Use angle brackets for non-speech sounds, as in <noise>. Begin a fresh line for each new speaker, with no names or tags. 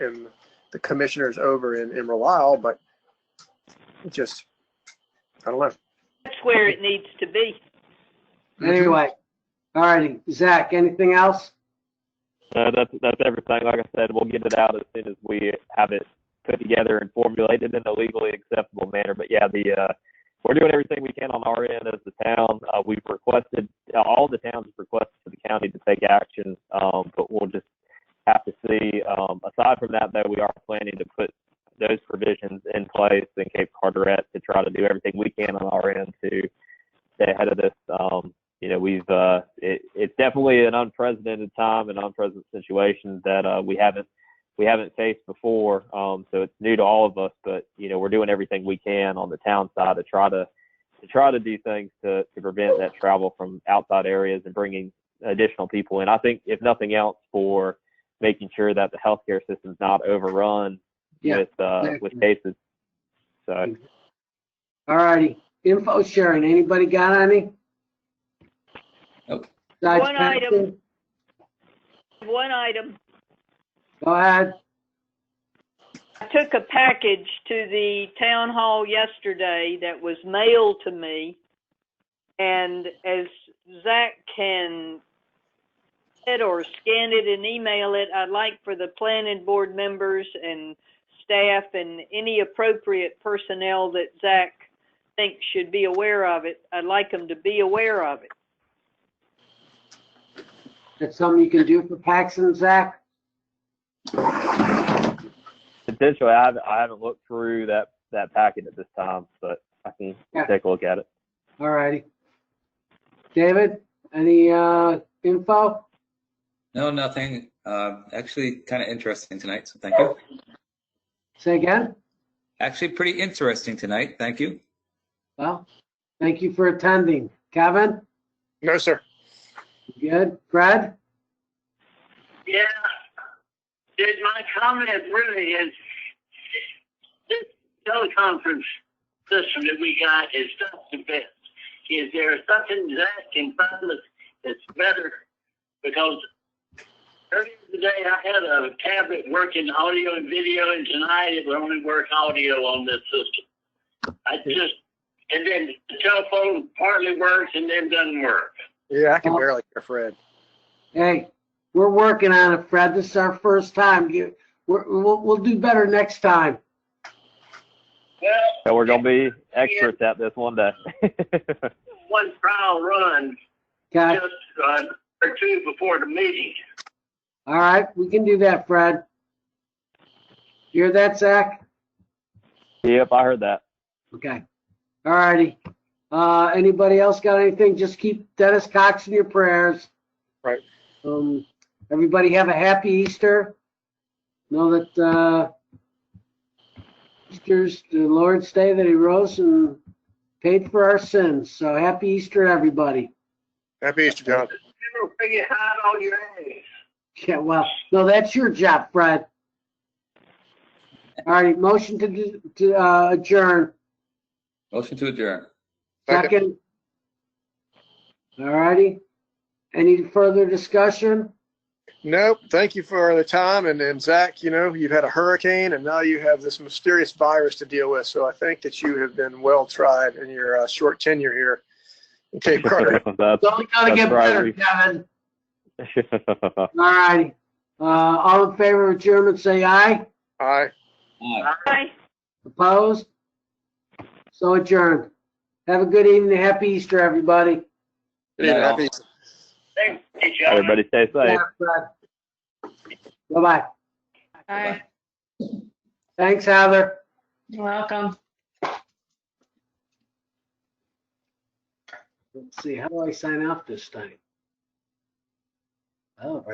and the commissioners over in, in Relle Isle, but it just, I don't know.
That's where it needs to be.
Anyway, all righty, Zach, anything else?
So that's that's everything. Like I said, we'll get it out as soon as we have it put together and formulated in a legally acceptable manner. But yeah, the uh, we're doing everything we can on our end as the town. Uh, we've requested uh, all the towns have requested for the county to take action, um, but we'll just have to see. Um, aside from that, though, we are planning to put those provisions in place in Cape Carteret to try to do everything we can on our end to stay ahead of this. Um, you know, we've uh, it, it's definitely an unprecedented time, an unprecedented situation that uh, we haven't we haven't faced before. Um, so it's new to all of us, but you know, we're doing everything we can on the town side to try to to try to do things to to prevent that travel from outside areas and bringing additional people in. I think if nothing else, for making sure that the healthcare system's not overrun
Yeah,
with uh, with cases. So.
All righty, info sharing, anybody got any?
Nope.
Besides
One item.
Paxton?
One item,
Go ahead.
I took a package to the town hall yesterday that was mailed to me. And as Zach can it or scan it and email it, I'd like for the planning board members and staff and any appropriate personnel that Zach thinks should be aware of it, I'd like them to be aware of it.
That's something you can do for Paxton, Zach?
Potentially, I haven't, I haven't looked through that, that packet at this time, but I can
Yeah.
take a look at it.
All righty. David, any uh, info?
No, nothing. Uh, actually, kind of interesting tonight. So thank you.
Say again?
Actually, pretty interesting tonight. Thank you.
Well, thank you for attending. Kevin,
No, sir.
you good? Fred?
Yeah. Did my comment really is this teleconference system that we got is not the best. Is there something Zach can find us that's better? Because earlier today I had a tablet working audio and video, and tonight it will only work audio on this system. I just and then the telephone partly works and then doesn't work.
Yeah, I can
Oh.
barely hear Fred.
Hey, we're working on it, Fred. This is our first time. You, we're, we'll, we'll do better next time.
Well,
So we're gonna be experts at this one day. <laughs>
one trial run
Okay?
just uh, or two before the meeting.
All right, we can do that, Fred. You hear that, Zach?
Yep, I heard that.
Okay. All righty. Uh, anybody else got anything? Just keep Dennis Cox in your prayers.
Right.
Um, everybody have a happy Easter. Know that, uh, Easter's the Lord's day that he rose and paid for our sins. So happy Easter, everybody.
Happy Easter, John.
You don't figure hide on your ass.
Yeah, well, no, that's your job, Fred. All righty, motion to, to, uh, adjourn.
Motion to adjourn.
Second.
Second. All righty. Any further discussion?
Nope. Thank you for the time. And, and Zach, you know, you've had a hurricane and now you have this mysterious virus to deal with. So I think that you have been well tried in your uh, short tenure here in <laughs> Cape Carteret.
It's only gonna get
That's right,
better,
we-
Kevin.
That's-
All righty. Uh, all in favor of adjournment, say aye.
All right.
Aye.
Bye.
Opposed? So adjourned. Have a good evening. Happy Easter, everybody.
Yeah.
Happy Easter.
Thanks, gentlemen.
<laughs> Everybody stay safe.
Yeah, Fred. Bye-bye.
Hi,
Thanks, Heather.
you're welcome.
Let's see, how do I sign off this time? Oh,